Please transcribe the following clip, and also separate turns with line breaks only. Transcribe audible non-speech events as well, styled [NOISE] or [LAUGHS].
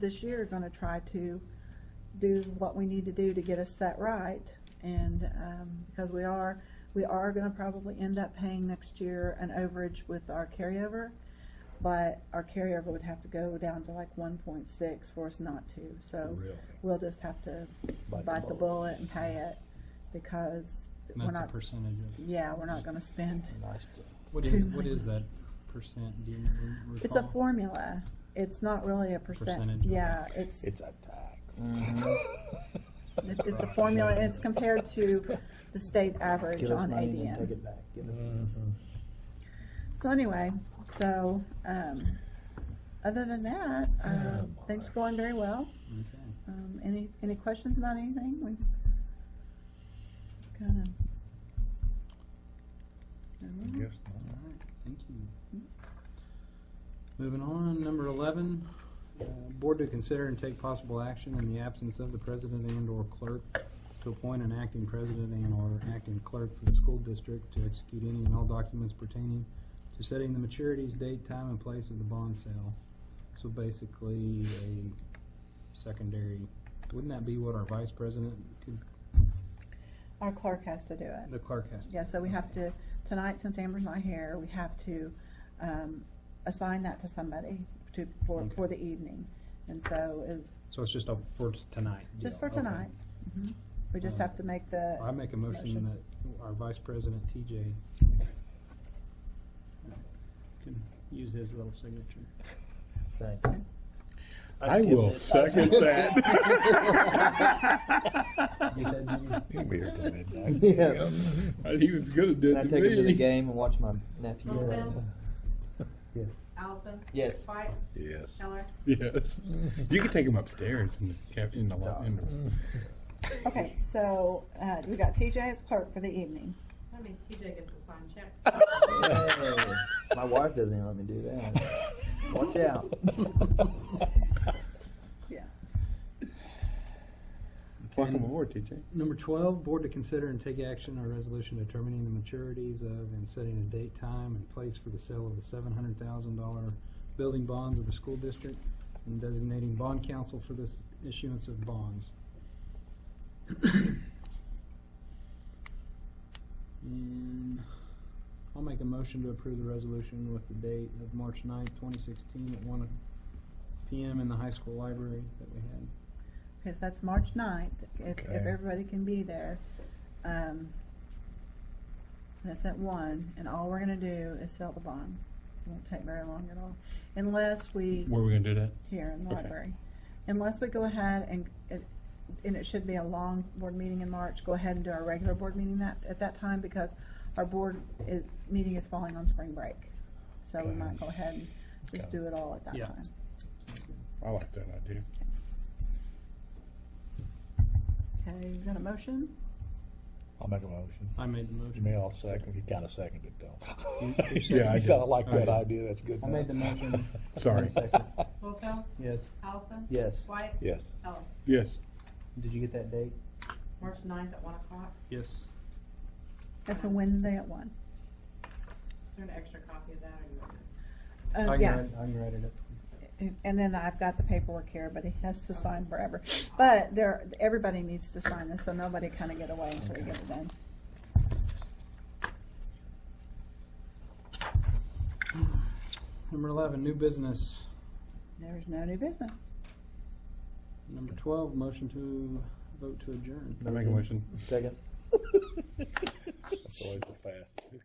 this year are gonna try to do what we need to do to get us set right. And, um, because we are, we are gonna probably end up paying next year an overage with our carryover. But our carryover would have to go down to like one point six for us not to, so
Really?
we'll just have to
Bite the
bite the
bullet.
bullet and pay it because
And
we're
That's a
not,
percentage of,
yeah, we're not gonna spend.
Nice to,
what
Two
is, what
million.
is that percent, do you re- recall?
It's a formula. It's not really a percent.
Percentage, okay.
Yeah, it's,
it's a tax.
Mm-hmm.
it- it's a formula and it's compared to the state average
Give us
on
money and then take
ADM.
it back. Give us-
So anyway, so, um, other than that, um, things are going very well.
Okay.
Um, any, any questions about anything? We kind of.
Yes,
All right, thank you. Moving on, number eleven, uh, board to consider and take possible action in the absence of the president and/or clerk to appoint an acting president and/or acting clerk for the school district to execute any and all documents pertaining to setting the maturities, date, time, and place of the bond sale. So basically, a secondary, wouldn't that be what our vice president, could
Our clerk has to do it.
the clerk has to?
Yeah, so we have to, tonight, since Amber's not here, we have to, um, assign that to somebody to, for, for the evening. And so is,
So it's just a, for tonight?
just
deal,
for
okay.
tonight. Mhm. We just have to make
I
the,
make a motion
Motion.
that our Vice President TJ can use his little signature.
Thanks.
I will second
[LAUGHS]
that. [LAUGHS] He'll be here till midnight.
Yeah.
Uh, He was gonna do
Can
it
I
to
take him to the
me.
game and watch my nephew?
Littleville?
Yes.
Allison?
Yes.
White?
Yes,
Keller?
yes. You can take him upstairs in the, cab- in the, lo- in the.
okay, so, uh, we got TJ as clerk for the evening.
That means TJ gets to sign checks.
Hey, My wife doesn't even let me
[LAUGHS]
do that. Watch out.
Yeah.
Welcome aboard, TJ.
Number twelve, board to consider and take action on a resolution determining the maturities of and setting a date, time, and place for the sale of the seven hundred thousand dollar building bonds of the school district and designating bond counsel for this issuance of bonds. And I'll make a motion to approve the resolution with the date of March 9th, twenty sixteen, at one PM in the high school library that we had.
Because that's March ninth, if, if
Okay.
everybody can be there. Um, that's at one, and all we're gonna do is sell the bonds. Won't take very long at all, unless we.
Where are we gonna do that?
here in the
Okay.
library. Unless we go ahead and, it- and it should be a long board meeting in March, go ahead and do our regular board meeting that, at that time, because our board is, meeting is falling on spring break. So we might go ahead and just do it all at that
Yeah.
time.
Sounds good.
I like that idea.
Okay, you got a motion?
I'll make a motion.
I made the motion.
May I'll second, you kinda seconded it
You-
though.
you seconded
You
it?
sound like that
Okay.
idea, that's good.
I made the
enough.
motion.
Sorry.
Second.
Littlefield?
Yes.
Allison?
Yes.
White?
Yes.
Keller?
Yes.
Did you get that date?
March ninth at one o'clock.
Yes.
That's a Wednesday at one.
Is there an extra copy of that or you want it?
Uh,
I can
yeah.
write, I can write it up.
And- And then I've got the paperwork here, but he has to sign forever. But there, everybody needs to sign this, so nobody kind of get away until we get it done.
Number eleven, new business.
There's no new business.
Number twelve, motion to vote to adjourn.
Mm-hmm.
I make a motion.
Second.
That's always the fastest.